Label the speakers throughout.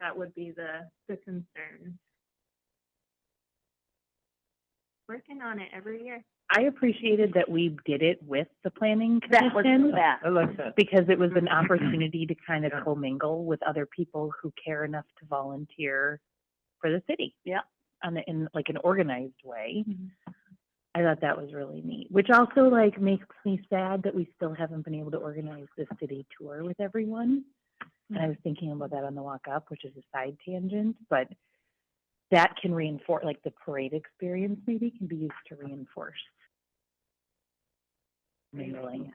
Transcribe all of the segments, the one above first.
Speaker 1: that would be the, the concern. Working on it every year.
Speaker 2: I appreciated that we did it with the planning
Speaker 3: That was
Speaker 2: commission.
Speaker 3: that.
Speaker 4: I like that.
Speaker 2: Because it was an opportunity to kind of
Speaker 4: Yeah.
Speaker 2: commingle with other people who care enough to volunteer for the city.
Speaker 3: Yeah.
Speaker 2: On the, in like an organized way.
Speaker 4: Mm-hmm.
Speaker 2: I thought that was really neat, which also like makes me sad that we still haven't been able to organize this city tour with everyone. And I was thinking about that on the walk up, which is a side tangent, but that can reinforce, like the parade experience maybe can be used to reinforce. Mingling.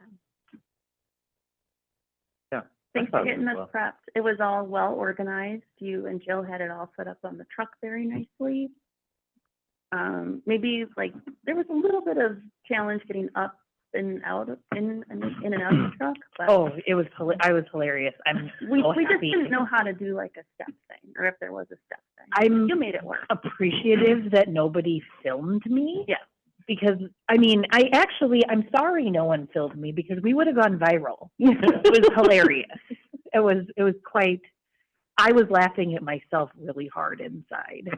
Speaker 3: Thanks for
Speaker 4: I thought it
Speaker 3: getting us
Speaker 4: was
Speaker 3: prepped. It was all well organized. You and Jill had it all set up on the truck very
Speaker 4: Mm-hmm.
Speaker 3: nicely. Um, maybe like, there was a little bit of challenge getting up and out, of in, and in and out of the truck, but
Speaker 2: Oh, it was, hila- I was hilarious. I'm
Speaker 3: we,
Speaker 2: so
Speaker 3: we just
Speaker 2: happy.
Speaker 3: didn't know how to do like a step thing, or if there was a step thing.
Speaker 2: I'm
Speaker 3: You made it work.
Speaker 2: appreciative that nobody filmed me.
Speaker 3: Yeah.
Speaker 2: Because, I mean, I actually, I'm sorry no one filmed me because we would have gone viral. it was hilarious. It was, it was quite, I was laughing at myself really hard inside.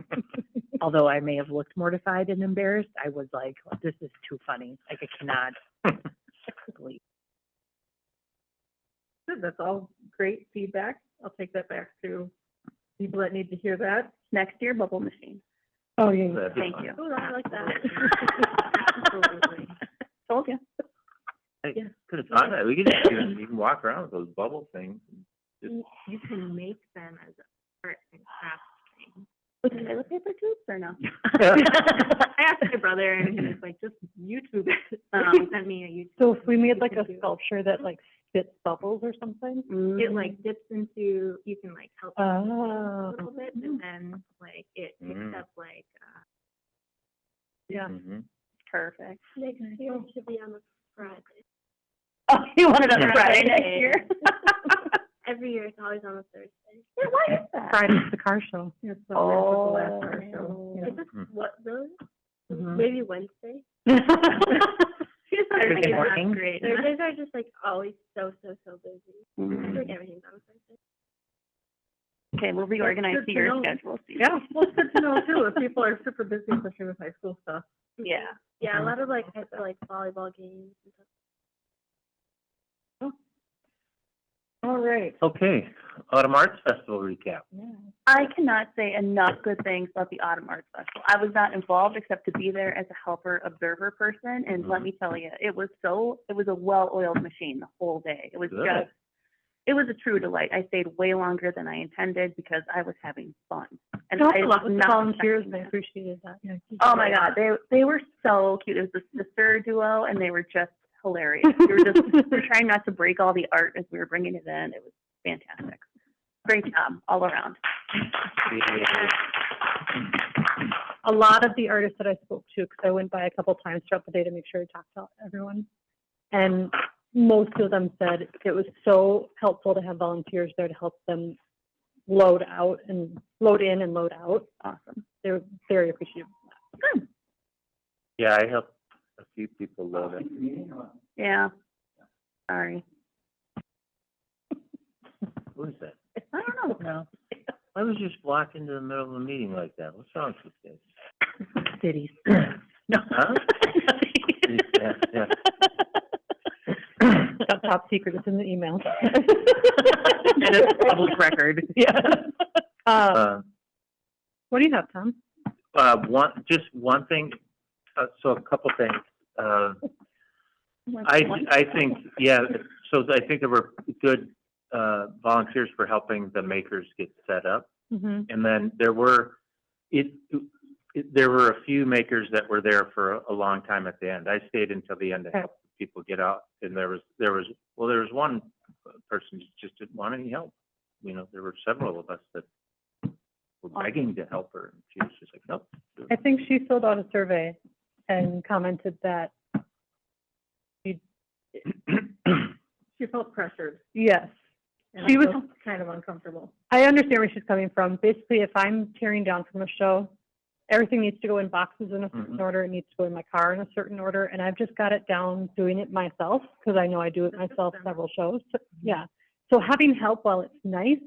Speaker 2: Although I may have looked mortified and embarrassed, I was like, this is too funny. Like, I cannot. believe-
Speaker 1: Good, that's all great feedback. I'll take that back to people that need to hear that.
Speaker 3: Next year, bubble machine.
Speaker 2: Oh, yeah.
Speaker 4: That'd be
Speaker 3: Thank
Speaker 4: fun.
Speaker 3: you.
Speaker 1: Oh, I like that.
Speaker 3: Absolutely. Told you.
Speaker 4: Hey,
Speaker 1: Yeah.
Speaker 4: Could've thought that, we could just, do it. you can walk around with those bubble things.
Speaker 1: You you can make them as art and craft thing.
Speaker 3: With toilet paper tubes or no?
Speaker 1: I asked my brother and he was like, just YouTube it. He
Speaker 3: Um,
Speaker 1: sent me a YouTube.
Speaker 5: So if we made
Speaker 1: you
Speaker 5: like
Speaker 1: can
Speaker 5: a
Speaker 1: do it.
Speaker 5: sculpture that like fits bubbles or something?
Speaker 1: It
Speaker 3: Mm-hmm.
Speaker 1: like dips into, you can like help it a
Speaker 5: Oh,
Speaker 1: little bit
Speaker 3: Mm-hmm.
Speaker 1: and then like it picks
Speaker 4: Mm.
Speaker 1: up like, uh,
Speaker 5: yeah.
Speaker 4: Mhm.
Speaker 3: Perfect.
Speaker 6: Next year should be on a Friday.
Speaker 3: Oh, you wanted
Speaker 4: Yeah.
Speaker 3: a Friday next
Speaker 1: Friday.
Speaker 3: year?
Speaker 6: Every year it's always on a Thursday.
Speaker 3: Yeah, Why is that?
Speaker 5: Friday's the car show.
Speaker 1: it's the
Speaker 3: Oh.
Speaker 1: last hour, so.
Speaker 6: Is this
Speaker 4: Hmm.
Speaker 6: what, really?
Speaker 2: Mm-hmm.
Speaker 5: Mhm.
Speaker 6: Maybe Wednesday?
Speaker 1: Here's what I
Speaker 2: Thursday
Speaker 1: think is not
Speaker 2: morning.
Speaker 1: great.
Speaker 6: Thursdays are just like always so, so, so busy. I
Speaker 4: Mm-hmm.
Speaker 6: feel
Speaker 3: Mhm.
Speaker 6: like everything's on a Thursday.
Speaker 3: Okay, we'll reorganize
Speaker 1: Good
Speaker 3: to
Speaker 1: to
Speaker 3: your
Speaker 1: know.
Speaker 3: schedule. Steve.
Speaker 1: Yeah, well, it's good to know too, if people are super busy, especially with high school stuff.
Speaker 3: Yeah.
Speaker 6: Yeah, a lot of like, I feel like volleyball games and stuff.
Speaker 5: All right.
Speaker 4: Okay, Autumn Arts Festival recap.
Speaker 3: I cannot say enough good things about the Autumn Arts Festival. I was not involved except to be there as a helper observer person, and let
Speaker 4: Mhm.
Speaker 3: me tell you, it was so, it was a well-oiled machine the whole day. It was
Speaker 4: Good.
Speaker 3: just, it was a true delight. I stayed way longer than I intended because I was having fun. And I was
Speaker 5: Lots of
Speaker 3: not
Speaker 5: volunteers, and I
Speaker 3: expecting that.
Speaker 5: appreciated that. Yeah.
Speaker 3: Oh my God, they they were so cute. It was the sister duo, and they were just hilarious. We were just we were trying not to break all the art as we were bringing it in. It was fantastic. Great job all around.
Speaker 4: Yeah.
Speaker 5: A lot of the artists that I spoke to, because I went by a couple times throughout the day to make sure I talked to everyone. And most of them said it was so helpful to have volunteers there to help them load out and load in and load out.
Speaker 3: Awesome.
Speaker 5: They were very appreciative.
Speaker 4: Yeah, I helped a few people load it.
Speaker 3: Yeah. Sorry.
Speaker 4: Who is that?
Speaker 3: I don't know.
Speaker 2: No,
Speaker 4: I was just walking into the middle of a meeting like that. What's wrong with this?
Speaker 2: cities.
Speaker 5: No.
Speaker 4: Huh? Yeah, yeah.
Speaker 5: Got top secret, it's in the email.
Speaker 2: And it's public record.
Speaker 5: Uh,
Speaker 4: Uh,
Speaker 5: what do you have, Tom?
Speaker 4: uh, one, just one thing, uh, so a couple things. Uh, I, I think, yeah, so I think there were good, uh, volunteers for helping the makers get set up.
Speaker 5: Mm-hmm.
Speaker 4: And then there were, it, it, there were a few makers that were there for a, a long time at the end. I stayed until the end to
Speaker 5: Okay.
Speaker 4: help people get out. And there was, there was, well, there was one person who just didn't want any help. You know, there were several of us that were begging to help her, and she was just like, nope.
Speaker 5: I think she filled out a survey and commented that,
Speaker 1: She felt pressured.
Speaker 5: yes.
Speaker 1: and
Speaker 5: She
Speaker 1: I
Speaker 5: was-
Speaker 1: felt Kind of uncomfortable.
Speaker 5: I understand where she's coming from. Basically, if I'm tearing down from a show, everything needs to go in boxes in a certain
Speaker 4: Mhm.
Speaker 5: order. It needs to go in my car in a certain order. And I've just got it down doing it myself because I know I do it myself
Speaker 1: system.
Speaker 5: several shows. So- Yeah. So having help while it's nice,